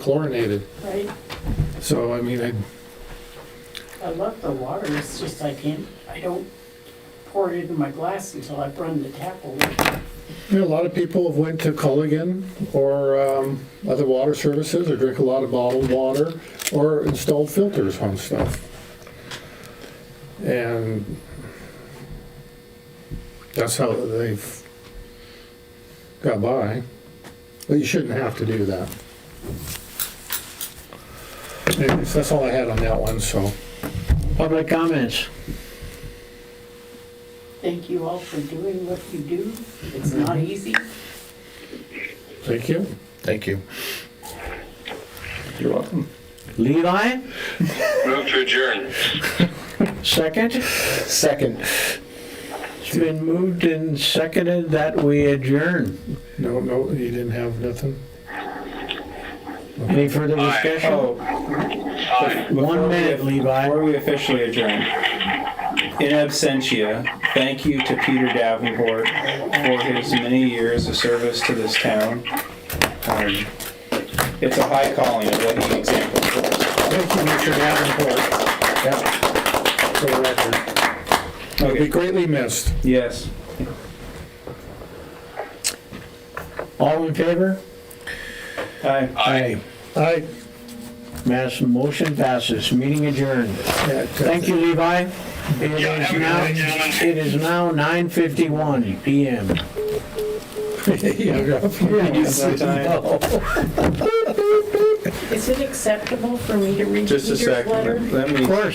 chlorinated. Right, So, I mean, I, I love the water, it's just I can't, I don't pour it into my glass until I've run the tap over. I mean, a lot of people have went to Culligan or um, other water services or drink a lot of bottled water or installed filters on stuff. And that's how they've got by. But you shouldn't have to do that. Anyways, that's all I had on that one, so. Public comments. Thank you all for doing what you do, it's not easy. Thank you. Thank you. You're welcome. Levi, Move to adjourn. second. Second. It's been moved and seconded that we adjourn. No, no, you didn't have nothing? Any further Aye. discussion? Oh, Aye. One minute, before Levi. we officially adjourn, in absentia, thank you to Peter Davenport for his many years of service to this town. Um, It's a high calling of what he exemplified. Thank you, Mr. Davenport. Yeah. For the record. It'll be Okay, greatly missed. yes. All in favor? Aye. Aye. I, Mass motion passes. Meeting adjourned. Thank you, Levi. It Yeah, is have a good now, night, gentlemen. it is now 9:51 PM. Sometime- Is it acceptable for me to read Just a Peter's second, letter? let me, Of course.